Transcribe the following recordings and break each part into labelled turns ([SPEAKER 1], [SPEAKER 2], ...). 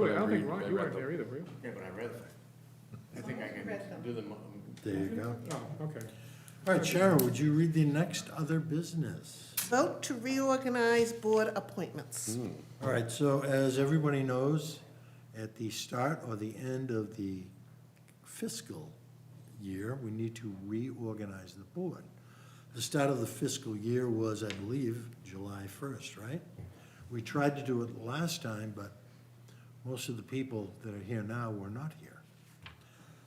[SPEAKER 1] were, I don't
[SPEAKER 2] read-
[SPEAKER 1] think, Ron,
[SPEAKER 2] I
[SPEAKER 1] you
[SPEAKER 2] read
[SPEAKER 1] weren't
[SPEAKER 2] them.
[SPEAKER 1] there either, were you?
[SPEAKER 3] Yeah, but I read them. I think I can do them. um,
[SPEAKER 4] There you go.
[SPEAKER 1] Oh, okay.
[SPEAKER 4] All right, Sharon, would you read the next other business?
[SPEAKER 5] Vote to reorganize board appointments.
[SPEAKER 4] All right, so as everybody knows, at the start or the end of the fiscal year, we need to reorganize the board. The start of the fiscal year was, I believe, July 1st, right? We tried to do it last time, but most of the people that are here now were not here.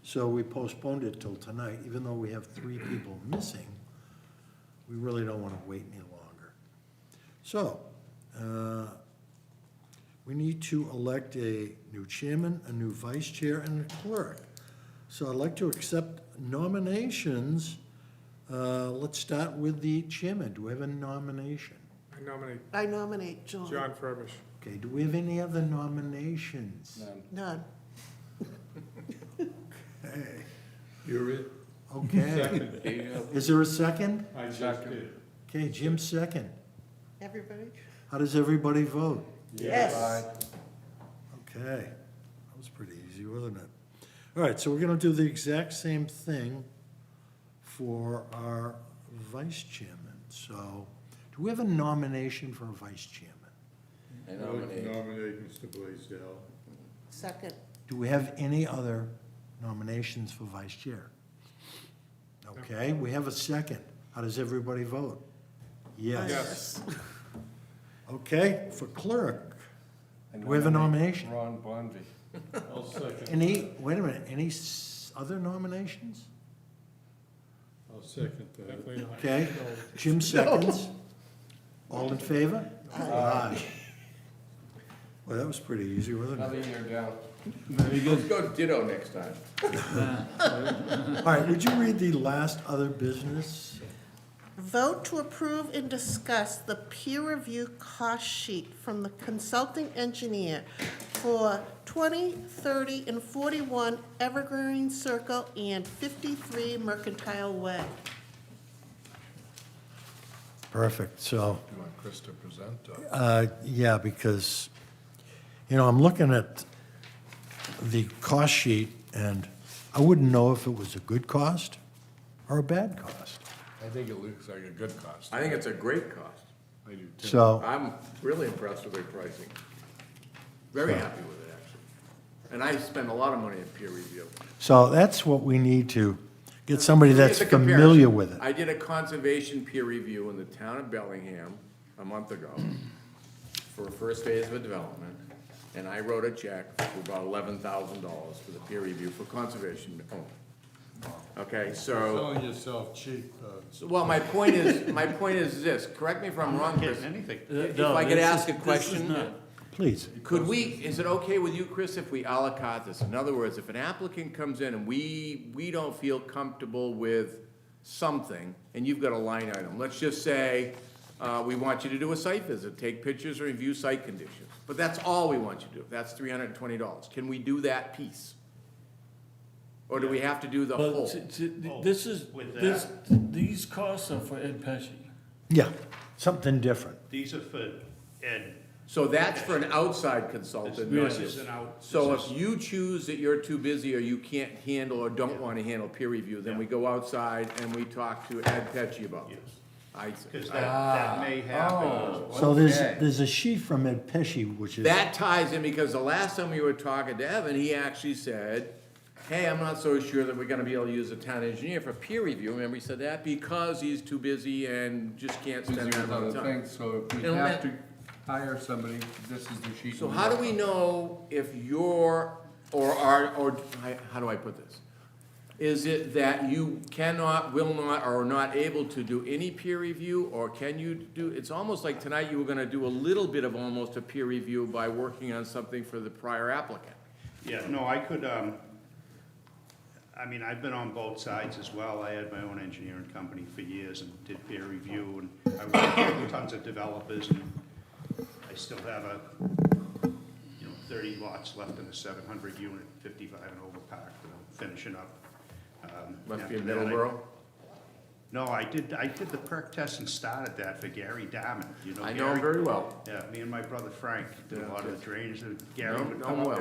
[SPEAKER 4] So we postponed it till tonight, even though we have three people missing. We really don't want to wait any longer. So, uh, we need to elect a new chairman, a new vice chair, and a clerk. So I'd like to accept nominations. Uh, Let's start with the chairman. Do we have a nomination?
[SPEAKER 1] I nominate
[SPEAKER 5] I nominate John.
[SPEAKER 1] John Furbish.
[SPEAKER 4] Okay, do we have any other nominations?
[SPEAKER 5] None.
[SPEAKER 2] You're it.
[SPEAKER 4] Okay.
[SPEAKER 3] There you go.
[SPEAKER 4] Is there a second?
[SPEAKER 1] I just did.
[SPEAKER 4] Okay, Jim, second.
[SPEAKER 5] Everybody?
[SPEAKER 4] How does everybody vote?
[SPEAKER 5] Yes.
[SPEAKER 4] Okay, that was pretty easy, wasn't it? All right, so we're gonna do the exact same thing for our vice chairman. So, do we have a nomination for a vice chairman?
[SPEAKER 3] I nominate.
[SPEAKER 2] Mr. Blaisdell.
[SPEAKER 5] Second.
[SPEAKER 4] Do we have any other nominations for vice chair? Okay, we have a second. How does everybody vote? Yes.
[SPEAKER 1] Yes.
[SPEAKER 4] Okay, for clerk, do we have a nomination?
[SPEAKER 6] Ron Bonvy.
[SPEAKER 2] I'll second,
[SPEAKER 4] Any, wait a minute, any s- other nominations?
[SPEAKER 2] I'll second that.
[SPEAKER 1] Definitely not.
[SPEAKER 4] Okay, Jim seconds. All in favor? Aye. Well, that was pretty easy, wasn't it?
[SPEAKER 6] Another year down.
[SPEAKER 3] Let's go ditto next time.
[SPEAKER 4] All right, would you read the last other business?
[SPEAKER 5] Vote to approve and discuss the peer review cost sheet from the consulting engineer for 20, 30, and 41 Evergreen Circle and 53 Mercantile Way.
[SPEAKER 4] Perfect, so,
[SPEAKER 2] You want Chris to present, uh,
[SPEAKER 4] uh, yeah, because, you know, I'm looking at the cost sheet, and I wouldn't know if it was a good cost or a bad cost.
[SPEAKER 2] I think it looks like a good cost.
[SPEAKER 3] I think it's a great cost.
[SPEAKER 2] I do too.
[SPEAKER 4] So.
[SPEAKER 3] I'm really impressed with their pricing. Very happy with it, actually. And I spend a lot of money in peer review.
[SPEAKER 4] So that's what we need to, get somebody that's
[SPEAKER 3] It's a comparison.
[SPEAKER 4] familiar with it.
[SPEAKER 3] I did a conservation peer review in the town of Bellingham a month ago for a first phase of a development, and I wrote a check for about eleven thousand dollars for the peer review for conservation only. Okay, so,
[SPEAKER 2] Selling yourself cheap, uh,
[SPEAKER 3] so, well, my point is, my point is this, correct me if I'm wrong, Chris.
[SPEAKER 7] anything.
[SPEAKER 3] If I could ask a question,
[SPEAKER 4] Please.
[SPEAKER 3] could we, is it okay with you, Chris, if we à la carte this? In other words, if an applicant comes in and we, we don't feel comfortable with something, and you've got a line item, let's just say, uh, we want you to do a site visit, take pictures or review site conditions. But that's all we want you to do, that's three hundred and twenty dollars. Can we do that piece? Or do we have to do the
[SPEAKER 8] But
[SPEAKER 3] whole?
[SPEAKER 8] t- t- this is,
[SPEAKER 7] With
[SPEAKER 8] this, these costs are for Ed Pesci.
[SPEAKER 4] Yeah, something different.
[SPEAKER 7] These are for Ed.
[SPEAKER 3] So that's for an outside consultant, not
[SPEAKER 8] This
[SPEAKER 3] you.
[SPEAKER 7] is an out-
[SPEAKER 3] So
[SPEAKER 7] this
[SPEAKER 3] if you choose that you're too busy or you can't handle or don't wanna handle peer review, then we go outside and we talk to Ed Pecci about this. I
[SPEAKER 7] Because
[SPEAKER 3] see.
[SPEAKER 7] that,
[SPEAKER 3] Ah,
[SPEAKER 7] that may
[SPEAKER 3] oh.
[SPEAKER 7] happen.
[SPEAKER 4] So there's,
[SPEAKER 3] Okay.
[SPEAKER 4] there's a sheet from Ed Pesci, which is.
[SPEAKER 3] That ties in because the last time we were talking to Evan, he actually said, hey, I'm not so sure that we're gonna be able to use a town engineer for peer review, remember he said that? Because he's too busy and just can't
[SPEAKER 2] busy
[SPEAKER 3] spend that
[SPEAKER 2] with
[SPEAKER 3] amount
[SPEAKER 2] other
[SPEAKER 3] of time.
[SPEAKER 2] things, so if we
[SPEAKER 3] It'll
[SPEAKER 2] have
[SPEAKER 3] ma-
[SPEAKER 2] to hire somebody, this is the sheet.
[SPEAKER 3] So how do we know if you're, or are, or, I- how do I put this? Is it that you cannot, will not, or are not able to do any peer review, or can you do, it's almost like tonight you were gonna do a little bit of almost a peer review by working on something for the prior applicant.
[SPEAKER 7] Yeah, no, I could, um, I mean, I've been on both sides as well. I had my own engineering company for years and did peer review and I worked with tons of developers and I still have a, you know, thirty lots left in the seven hundred unit, fifty-five and over park that I'm finishing up. Um,
[SPEAKER 3] Must be in
[SPEAKER 7] after that, I-
[SPEAKER 3] Middleborough.
[SPEAKER 7] No, I did, I did the perk test and started that for Gary Diamond, you know
[SPEAKER 3] I
[SPEAKER 7] Gary?
[SPEAKER 3] know him very well.
[SPEAKER 7] Yeah, me and my brother Frank did a lot of the drainage, that Gary
[SPEAKER 3] Know
[SPEAKER 7] would
[SPEAKER 3] know
[SPEAKER 7] come
[SPEAKER 3] him
[SPEAKER 7] up
[SPEAKER 3] well.